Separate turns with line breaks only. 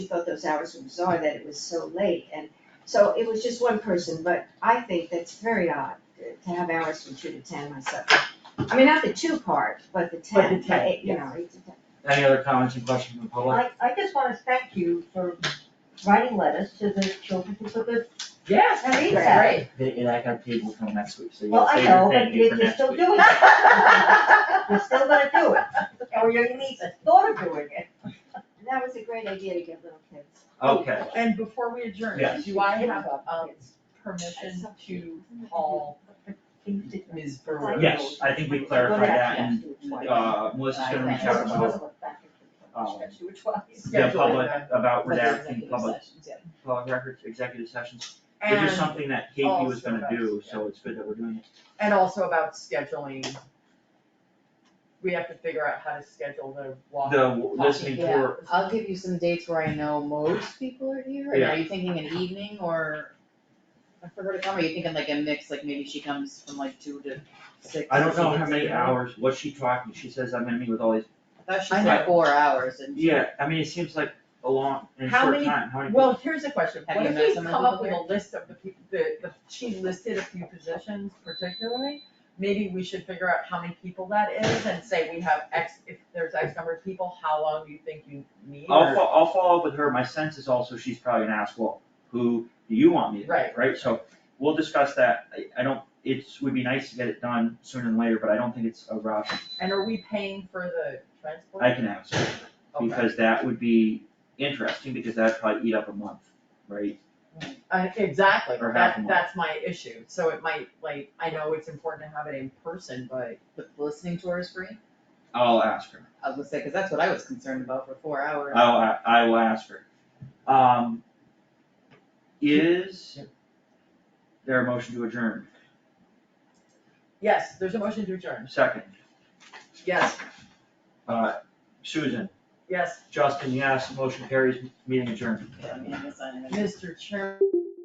she thought those hours were bizarre that it was so late, and so it was just one person, but I think that's very odd to have hours from two to ten myself. I mean, not the two part, but the
But the
ten, the
10,
eight, you
yes.
know, eight to ten.
Any other comments and questions from the public?
I, I just wanna thank you for writing letters to the children who took us,
Yes.
and read
Great.
that.
They, and I got paid till next week, so
Well,
you'll
I
save your
know, but
thank you
you-
for
you're
next
still
week.
doing it. You're still gonna do it, or you're at least a thought of doing it.
And that was a great idea to give little kids.
Okay,
And before we adjourn,
Yes.
do I have, um, permission to call Ms. Burrow?
yes, I think we clarified that and, uh, Melissa's gonna reach out to uh, um, the
Schedule
public
it.
about
For the
redacting
executive
public,
sessions, yeah.
public records, executive sessions, which is
And,
something that Katie was
also
gonna
about-
do, so it's good that we're doing it.
and also about scheduling. We have to figure out how to schedule the walk.
The listening
Yeah,
tour,
I'll give you some dates where I know most people are here, and are you thinking an evening or for her to come, or are you thinking like a mix, like maybe she comes from like two to six?
I don't
so she
know how
gets
many
here?
hours, what's she talking, she says I'm gonna meet with all these,
I thought she
I
know.
said four hours and.
yeah, I mean, it seems like a long, in a
How
short
many-
time, how many?
Well, here's a question,
Have
what
you
if
met
we
some of
come
the
up
people
with a list of the people, the, the, she listed a few positions particularly? Maybe we should figure out how many people that is and say we have X, if there's X number of people, how long do you think you need?
I'll
or-
fo- I'll follow up with her, my sense is also she's probably gonna ask, well, who do you want me to,
Right.
pick, right, so we'll discuss that, I, I don't, it's, would be nice to get it done sooner than later, but I don't think it's a rush,
And are we paying for the transport?
I can ask her,
Okay.
because that would be interesting, because that'd probably eat up a month, right?
Uh, exactly,
Or half a
that,
month.
that's my issue, so it might, like, I know it's important to have it in person, but.
The listening tour is free,
I'll ask her,
I was gonna say, cause that's what I was concerned about for four hours.
I'll, a- I will ask her. Um, is there a motion to adjourn,
Yes, there's a motion to adjourn,
second,
yes,
uh, Susan,
yes,
Justin, yes, motion carries, meeting adjourned.
Yeah, I mean, I guess I-
Mr. Chairman.